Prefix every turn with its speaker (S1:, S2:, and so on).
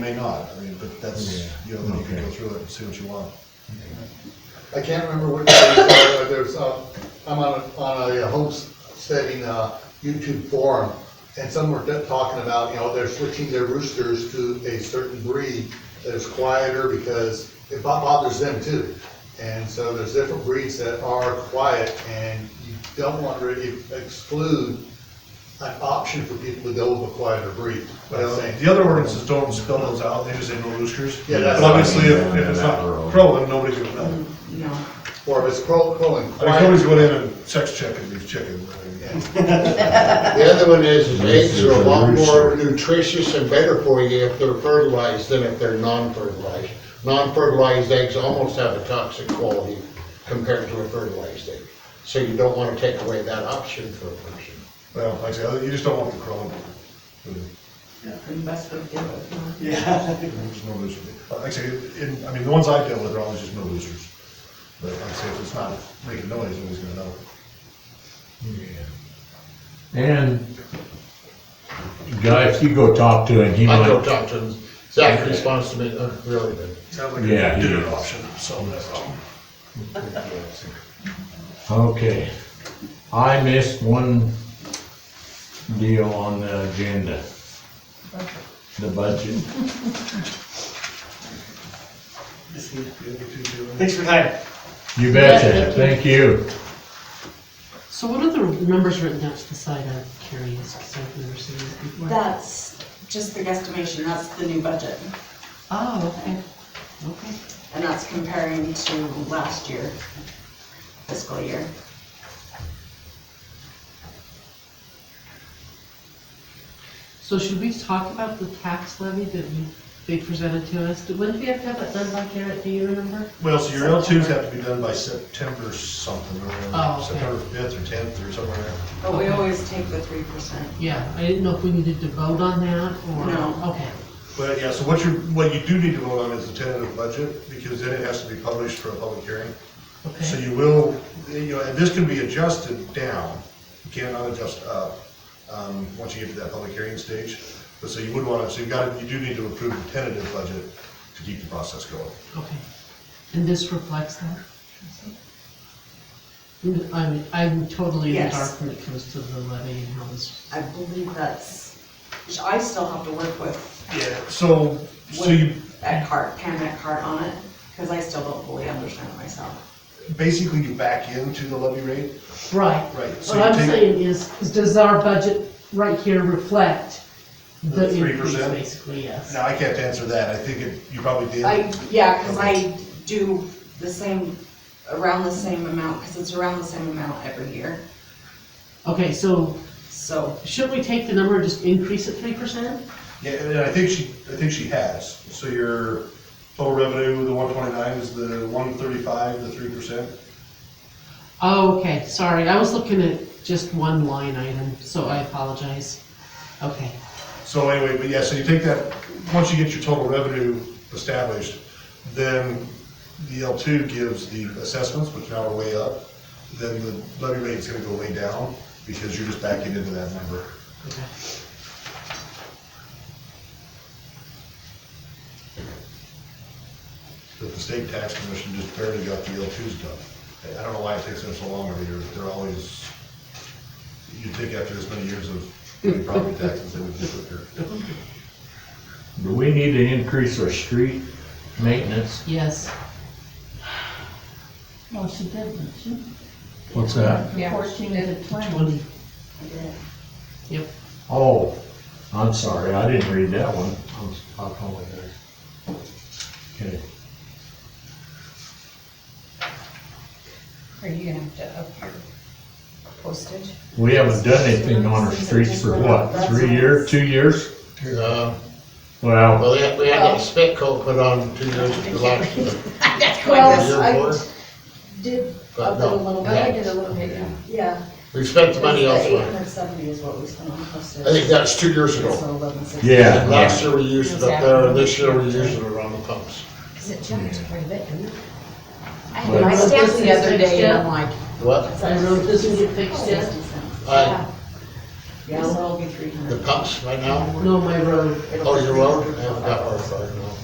S1: may not, I mean, but that's, you know, then you can go through it and see what you want.
S2: I can't remember what, there was, uh, there's, uh, I'm on, a- on a uh, homesteading, uh, YouTube forum, and some were talking about, you know, they're switching their roosters to a certain breed that is quieter because it bo- bothers them too. And so there's different breeds that are quiet, and you don't want to really exclude an option for people to go with a quieter breed. But I'm saying,
S1: Uh, The other ordinances don't spell those out, they just say no roosters.
S2: Yeah, that's-
S1: But Obviously, if, if it's not crowing, nobody's gonna know. I mean,
S3: No.
S2: or if it's crow, crowing
S1: nobody's
S2: quiet,
S1: going in and sex checking these chickens. I mean,
S4: The other one is, is eggs are a lot more nutritious and better for you if they're fertilized than if they're non-fertilized. Non-fertilized eggs almost have a toxic quality compared to a fertilized egg. So you don't wanna take away that option for a person.
S1: Well, like I said, you just don't want the crowing.
S3: And best of it.
S1: There's no rooster. Like I say, in, I mean, the ones I deal with are always just no roosters. But like I say, if it's not making noise, nobody's gonna know.
S5: And guy, if you go talk to him, he
S4: I go
S5: might,
S4: talk to them, Zach responds to me, "Uh, really good.
S1: Sounds
S5: like a Yeah, he dinner is.
S1: option, so that's all.
S5: okay. I missed one deal on the agenda. The budget.
S6: Thanks for your time.
S5: You betcha, thank you.
S7: So what are the numbers written down to the side? I'm curious, because I've never seen this before.
S3: That's just the guesstimation, that's the new budget,
S7: Oh, okay, okay.
S3: and that's comparing to last year, fiscal year.
S7: So should we talk about the tax levy that you, they presented to us? Did- When do we have to have that done by, Garrett, do you remember?
S1: Well, so your L twos have to be done by September something, or
S7: Oh, okay.
S1: September fifth or tenth or somewhere there.
S3: But we
S7: Okay.
S3: always take the three percent.
S7: Yeah, I didn't know if we needed to vote on that, or?
S3: No.
S7: Okay,
S1: But yeah, so what you, what you do need to vote on is the tentative budget, because then it has to be published for a public hearing. So
S7: okay,
S1: you will, you know, and this can be adjusted down, you cannot adjust up, um, once you get to that public hearing stage. But so you would wanna, so you gotta, you do need to approve the tentative budget to keep the process going.
S7: okay. And this reflects that? Mm, I'm, I'm totally in the
S3: Yes.
S7: dark when it comes to the levy and how this,
S3: I believe that's, which I still have to work with,
S1: Yeah. So, so you,
S3: with Eckhart, Pam Eckhart on it, because I still don't fully understand it myself.
S1: basically you back into the levy rate,
S7: right.
S1: right? So
S7: What
S1: you
S7: I'm
S1: take-
S7: saying is, is does our budget right here reflect
S1: The
S7: the
S1: 3%?
S7: increase, basically, yes?
S1: Now, I can't answer that, I think it, you probably did.
S3: I, yeah, because I do the same, around the same amount, because it's around the same amount every year,
S7: Okay, so
S3: so.
S7: shouldn't we take the number and just increase it three percent?
S1: Yeah, and I think she, I think she has. So your total revenue, the one twenty-nine is the one thirty-five, the three percent.
S7: Oh, okay, sorry, I was looking at just one line item, so I apologize. Okay,
S1: So anyway, but yeah, so you take that, once you get your total revenue established, then the L two gives the assessments, which now are way up. Then the levy rate's gonna go way down because you're just backing into that number.
S7: okay.
S1: But the state tax commission just barely got the L twos done. I- I don't know why it takes them so long every year, they're always, you'd think after this many years of property taxes, they would disappear.
S5: Do we need to increase our street maintenance?
S7: Yes,
S8: Well, she did, didn't she?
S5: What's that?
S8: Fourteen to twenty.
S7: twenty,
S3: I did it.
S7: yep.
S5: Oh, I'm sorry, I didn't read that one. I'm, I'll call it there. Okay,
S8: Are you gonna have to up your postage?
S5: we haven't done anything on our streets for what, three years, two years?
S4: Uh,
S5: Well,
S4: Well, we had, we had that spit coat put on two years ago, last year.
S8: Well,
S4: year before,
S8: I did
S4: but
S8: up it a
S4: no,
S8: little bit, I did a little bit, yeah.
S3: Yeah.
S4: We've spent the money
S3: Eight
S4: elsewhere.
S3: hundred seventy is what we spent on postage.
S4: I think that's two years ago.
S3: So 1160.
S5: Yeah.
S4: Last year we used it up there, and this year we used it around the pumps.
S8: Cause it jumped quite a bit, didn't it? I
S5: But-
S8: had my stamps the other day and I'm like,
S4: What? Uh,
S7: I don't know, doesn't get fixed yet?
S3: $0.60.
S4: I,
S9: Yeah, so it'll be three hundred.
S4: The pumps right now?
S3: No, my road.
S4: Oh, your road? I haven't got one, sorry, no.